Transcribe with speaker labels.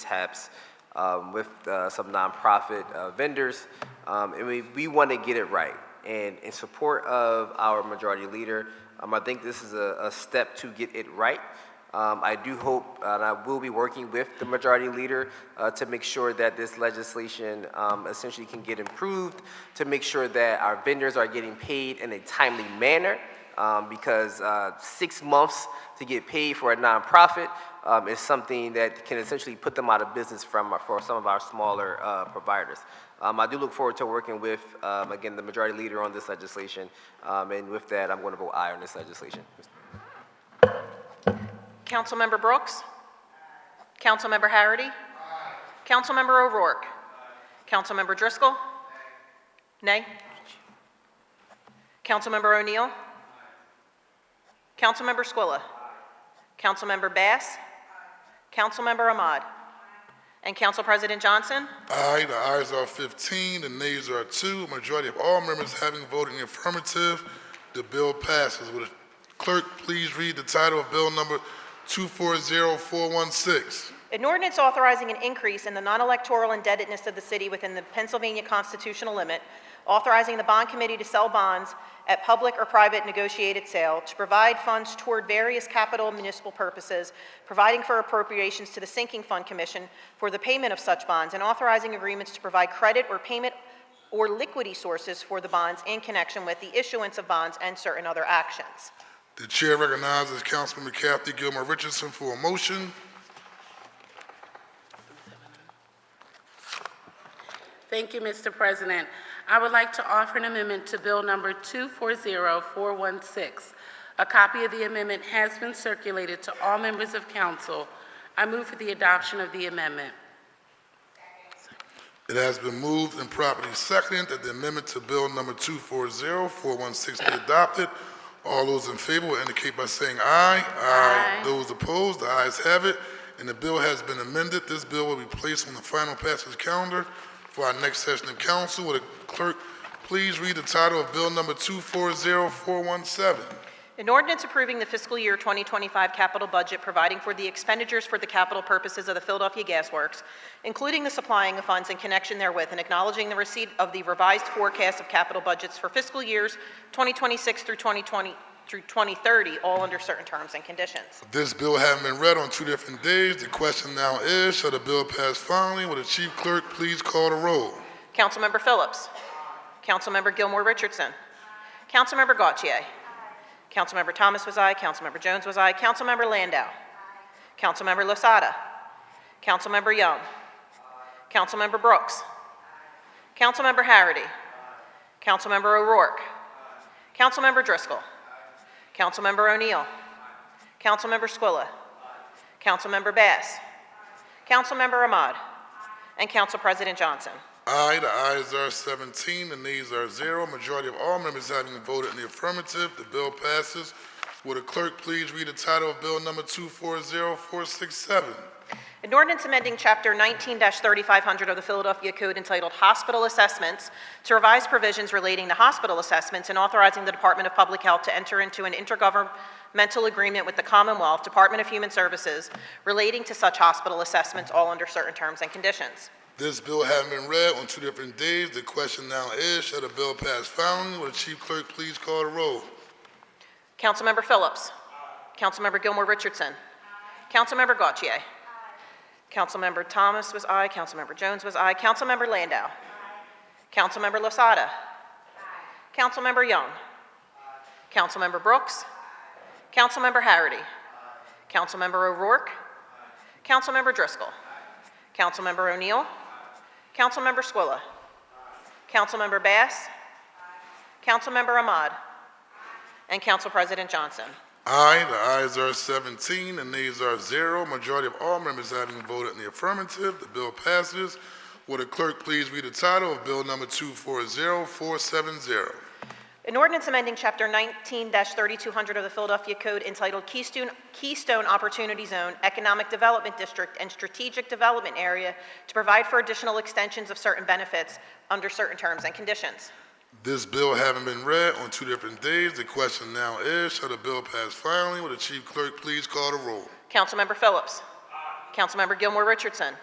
Speaker 1: mishaps um, with uh, some nonprofit uh, vendors, um, and we, we want to get it right. And in support of our majority leader, um, I think this is a, a step to get it right. Um, I do hope, uh, and I will be working with the majority leader uh, to make sure that this legislation um, essentially can get improved, to make sure that our vendors are getting paid in a timely manner, um, because uh, six months to get paid for a nonprofit um, is something that can essentially put them out of business from for some of our smaller uh, providers. Um, I do look forward to working with, um, again, the majority leader on this legislation, um, and with that, I'm going to vote aye on this legislation.
Speaker 2: Councilmember Brooks? Councilmember Harity? Councilmember O'Rourke? Councilmember Driscoll? Nay. Councilmember O'Neill? Councilmember Squilla? Councilmember Bass? Councilmember Ahmad? And Council President Johnson?
Speaker 3: Aye, the ayes are 15, the nays are 2. Majority of all members having voted in the affirmative, the bill passes. Would the clerk please read the title of bill number 240416?
Speaker 2: An ordinance authorizing an increase in the non-electoral indebtedness of the city within the Pennsylvania constitutional limit, authorizing the bond committee to sell bonds at public or private negotiated sale to provide funds toward various capital and municipal purposes, providing for appropriations to the sinking fund commission for the payment of such bonds, and authorizing agreements to provide credit or payment or liquidity sources for the bonds in connection with the issuance of bonds and certain other actions.
Speaker 3: The chair recognizes Councilman Kathy Gilmore Richardson for a motion.
Speaker 4: Thank you, Mr. President. I would like to offer an amendment to Bill Number 240416. A copy of the amendment has been circulated to all members of council. I move for the adoption of the amendment.
Speaker 3: It has been moved and properly seconded that the amendment to bill number 240416 be adopted. All those in favor will indicate by saying aye.
Speaker 4: Aye.
Speaker 3: Those opposed, the ayes have it, and the bill has been amended. This bill will be placed on the final passage calendar for our next session of council. Would the clerk please read the title of bill number 240417?
Speaker 2: An ordinance approving the fiscal year 2025 capital budget providing for the expenditures for the capital purposes of the Philadelphia Gas Works, including the supplying of funds in connection therewith, and acknowledging the receipt of the revised forecast of capital budgets for fiscal years 2026 through 2020 through 2030, all under certain terms and conditions.
Speaker 3: This bill having been read on two different days, the question now is, shall the bill pass finally? Will the chief clerk please call the roll?
Speaker 2: Councilmember Phillips. Councilmember Gilmore Richardson. Councilmember Gautier. Councilmember Thomas was aye. Councilmember Jones was aye. Councilmember Landau. Councilmember Losada. Councilmember Young. Councilmember Brooks. Councilmember Harity. Councilmember O'Rourke. Councilmember Driscoll. Councilmember O'Neill. Councilmember Squilla. Councilmember Bass. Councilmember Ahmad. And Council President Johnson.
Speaker 3: Aye, the ayes are 17, the nays are 0. Majority of all members having voted in the affirmative, the bill passes. Would the clerk please read the title of Bill Number 240467?
Speaker 2: An ordinance amending Chapter 19-3500 of the Philadelphia Code entitled Hospital Assessments to revise provisions relating to hospital assessments and authorizing the Department of Public Health to enter into an intergovernmental agreement with the Commonwealth Department of Human Services relating to such hospital assessments, all under certain terms and conditions.
Speaker 3: This bill having been read on two different days, the question now is, shall the bill pass finally? Will the chief clerk please call the roll?
Speaker 2: Councilmember Phillips. Councilmember Gilmore Richardson. Councilmember Gautier. Councilmember Thomas was aye. Councilmember Jones was aye. Councilmember Landau. Councilmember Losada. Councilmember Young. Councilmember Brooks. Councilmember Harity. Councilmember O'Rourke. Councilmember Driscoll. Councilmember O'Neill. Councilmember Squilla. Councilmember Bass. Councilmember Ahmad. And Council President Johnson.
Speaker 3: Aye, the ayes are 17, the nays are 0. Majority of all members having voted in the affirmative, the bill passes. Would the clerk please read the title of Bill Number 240470?
Speaker 2: An ordinance amending Chapter 19-3200 of the Philadelphia Code entitled Keystone Keystone Opportunity Zone Economic Development District and Strategic Development Area to provide for additional extensions of certain benefits under certain terms and conditions.
Speaker 3: This bill having been read on two different days, the question now is, shall the bill pass finally? Will the chief clerk please call the roll?
Speaker 2: Councilmember Phillips. Councilmember Gilmore Richardson.